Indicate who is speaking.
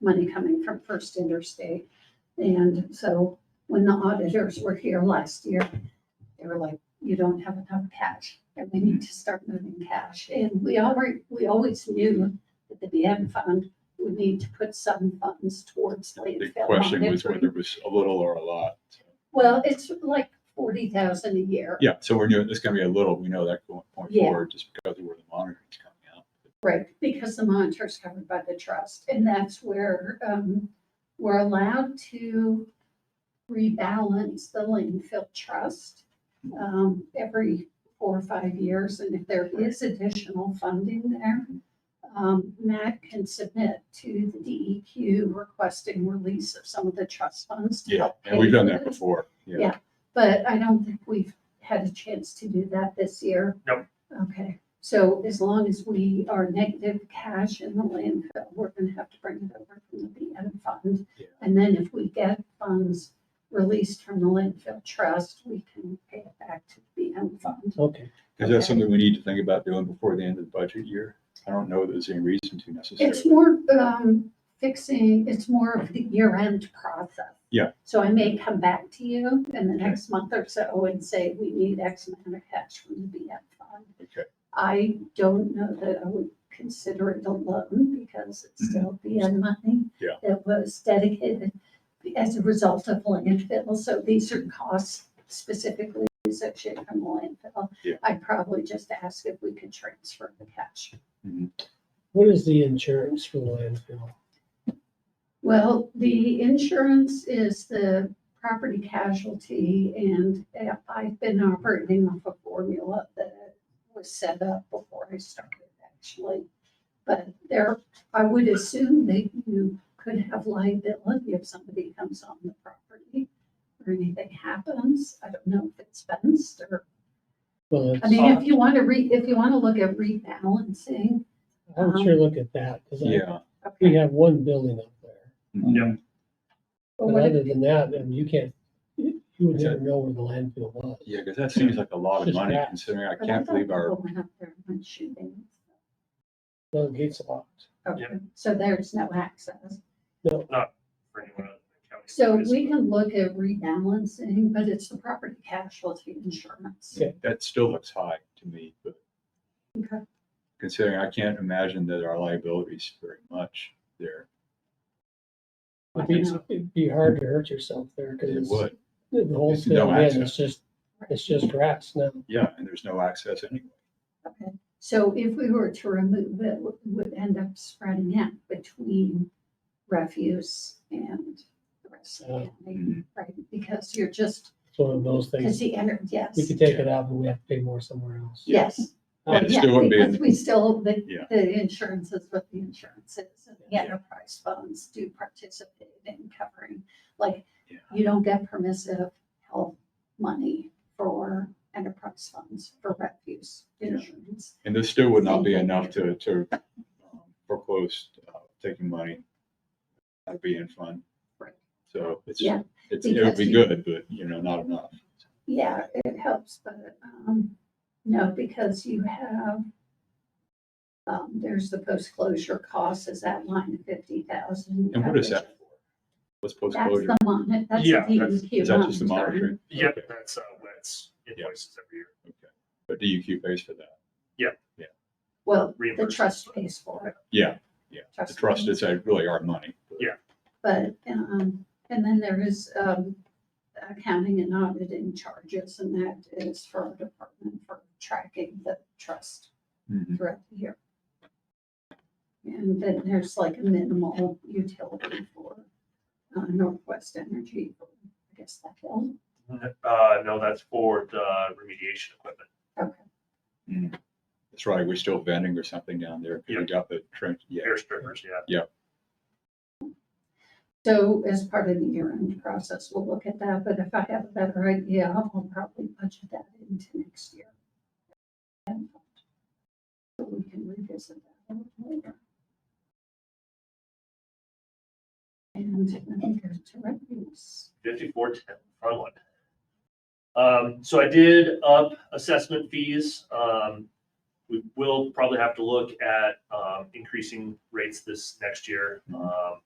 Speaker 1: money coming from First Interstate. And so when the auditors were here last year, they were like, you don't have enough cash and we need to start moving cash. And we already, we always knew that the DM fund would need to put some funds towards
Speaker 2: The
Speaker 1: landfill.
Speaker 2: question was whether
Speaker 1: monitoring.
Speaker 2: it was a little or a lot.
Speaker 1: Well, it's like forty thousand a year.
Speaker 2: Yeah, so we're doing, it's gonna be a little, we know that going point
Speaker 1: Yeah.
Speaker 2: forward, just because of where the monitoring's coming out.
Speaker 1: Right, because the monitor's covered by the trust, and that's where, um, we're allowed to rebalance the landfill trust, um, every four or five years, and if there is additional funding there, um, Matt can submit to the DEQ requesting release of some of the trust funds. to
Speaker 2: Yeah,
Speaker 1: help
Speaker 2: and we've done
Speaker 1: pay for
Speaker 2: that
Speaker 1: this.
Speaker 2: before, yeah.
Speaker 1: Yeah. But I don't think we've had a chance to do that this year.
Speaker 3: Nope.
Speaker 1: Okay, so as long as we are negative cash in the landfill, we're gonna have to bring it over from the BN fund.
Speaker 2: Yeah.
Speaker 1: And then if we get funds released from the landfill trust, we can pay it back to the BN fund.
Speaker 3: Okay.
Speaker 2: Is that something we need to think about doing before the end of the budget year? I don't know that there's any reason to
Speaker 1: It's
Speaker 2: necessarily.
Speaker 1: more, um, fixing, it's more of the year-end process.
Speaker 2: Yeah.
Speaker 1: So I may come back to you in the
Speaker 2: Okay.
Speaker 1: next month or so and say, we need X amount of cash from the BN fund.
Speaker 2: Okay,
Speaker 1: I don't know that I would consider it a loan because it's still BN money.
Speaker 2: Mm-hmm. Yeah.
Speaker 1: That was dedicated as a result of landfill, so these are costs specifically associated from the landfill.
Speaker 2: Yeah.
Speaker 1: I'd probably just ask if we could transfer the cash.
Speaker 3: What is the insurance for the landfill?
Speaker 1: Well, the insurance is the property casualty and uh, I've been operating off a formula that was set up before I started actually. But there, I would assume that you could have liability if somebody comes on the property or anything happens. I don't know if it's fenced or,
Speaker 3: Well,
Speaker 1: I mean,
Speaker 3: it's-
Speaker 1: if you want to re, if you want to look at rebalancing. uh-huh.
Speaker 3: I'm sure look at that, because
Speaker 2: yeah.
Speaker 3: we
Speaker 1: okay,
Speaker 3: have one building up there.
Speaker 2: Yeah.
Speaker 1: but
Speaker 3: But
Speaker 1: what if-
Speaker 3: other than that, and you can't, you would
Speaker 2: Is that-
Speaker 3: never know where the landfill was.
Speaker 2: Yeah, because that seems like a lot of
Speaker 3: Just
Speaker 2: money
Speaker 3: that.
Speaker 2: considering I
Speaker 1: but I
Speaker 2: can't
Speaker 1: thought
Speaker 2: believe our,
Speaker 1: people Went up there and went shooting.
Speaker 3: No the gates locked.
Speaker 1: Okay, so there's no access.
Speaker 4: for anyone other than the county
Speaker 1: So
Speaker 4: employees,
Speaker 1: we
Speaker 4: but
Speaker 1: can look at rebalancing, but it's the property casualty insurance.
Speaker 3: Yeah.
Speaker 2: that still looks high to me, but
Speaker 1: Okay.
Speaker 2: considering I can't imagine that our liabilities very much there.
Speaker 3: It'd
Speaker 1: I
Speaker 3: be,
Speaker 1: know.
Speaker 3: it'd be hard to hurt yourself there,
Speaker 2: It
Speaker 3: because
Speaker 2: would,
Speaker 3: the the whole
Speaker 2: It's no
Speaker 3: thing, in,
Speaker 2: access.
Speaker 3: it's just, it's just grass now.
Speaker 2: yeah, and there's no access anyway.
Speaker 1: Okay, so if we were to remove it, we would end up spreading out between refuse and the rest of the
Speaker 3: Uh,
Speaker 1: county,
Speaker 2: Mhm.
Speaker 1: right? Because you're just,
Speaker 3: It's one of those
Speaker 1: because
Speaker 3: things,
Speaker 1: the, ener- yes,
Speaker 3: we could take it out, but we have to pay more somewhere else.
Speaker 1: yes.
Speaker 3: Yeah,
Speaker 2: it
Speaker 1: Yeah,
Speaker 2: still wouldn't be in-
Speaker 1: Because we still, the,
Speaker 2: Yeah.
Speaker 1: the insurance is what the insurance is, and the
Speaker 2: Yeah.
Speaker 1: enterprise funds do participate in covering, like,
Speaker 2: Yeah.
Speaker 1: you don't get permissive health money for enterprise funds for refuse
Speaker 2: Yeah.
Speaker 1: insurance.
Speaker 2: And this still would not
Speaker 1: Same
Speaker 2: be
Speaker 1: thing
Speaker 2: enough to, to um, foreclose, uh, taking money out of being fund.
Speaker 1: Right.
Speaker 2: So it's,
Speaker 1: Yeah,
Speaker 2: it's, it would be
Speaker 1: because
Speaker 2: good, but you know, not enough.
Speaker 1: Yeah, it helps, but, um, no, because you have, um, there's the post-closure costs is that line of fifty thousand.
Speaker 2: And what is that for? What's
Speaker 1: That's
Speaker 2: post-closure?
Speaker 1: the mon, that's the E
Speaker 4: Yeah, that's-
Speaker 1: DEQ
Speaker 2: Is that just the
Speaker 1: monitoring.
Speaker 2: monitoring?
Speaker 4: Yeah,
Speaker 2: Okay.
Speaker 4: that's, uh, that's
Speaker 2: Yeah.
Speaker 4: invoices every year.
Speaker 2: But DEQ pays for that.
Speaker 1: Well, the
Speaker 4: Reimbursement.
Speaker 1: trust pays for it.
Speaker 2: Yeah, yeah. The trust
Speaker 1: pays.
Speaker 2: is uh, really our money. but-
Speaker 4: Yeah.
Speaker 1: But, um, and then there is, um, accounting and auditing charges, and that is for our department for tracking the trust
Speaker 2: Mhm.
Speaker 1: throughout the year. And then there's like a minimal utility for uh, Northwest Energy, I guess that bill.
Speaker 4: N- Uh, no, that's for the remediation equipment.
Speaker 1: Okay,
Speaker 2: mm-hmm. That's right. We're still vending or something down there. 'cause
Speaker 4: Yeah.
Speaker 2: We got the trench. Yeah.
Speaker 4: Air strippers, yeah.
Speaker 1: so as part of the year-end process, we'll look at that, but if I have a better idea, I'll probably budget that into next year. And So we can revisit that a little later. And I think there's two revenues.
Speaker 4: fifty-four ten, Frontline. Um, so I did up assessment fees. Um,
Speaker 2: Mm-hmm.
Speaker 4: we will probably have to look at, um, increasing rates this next year. Um,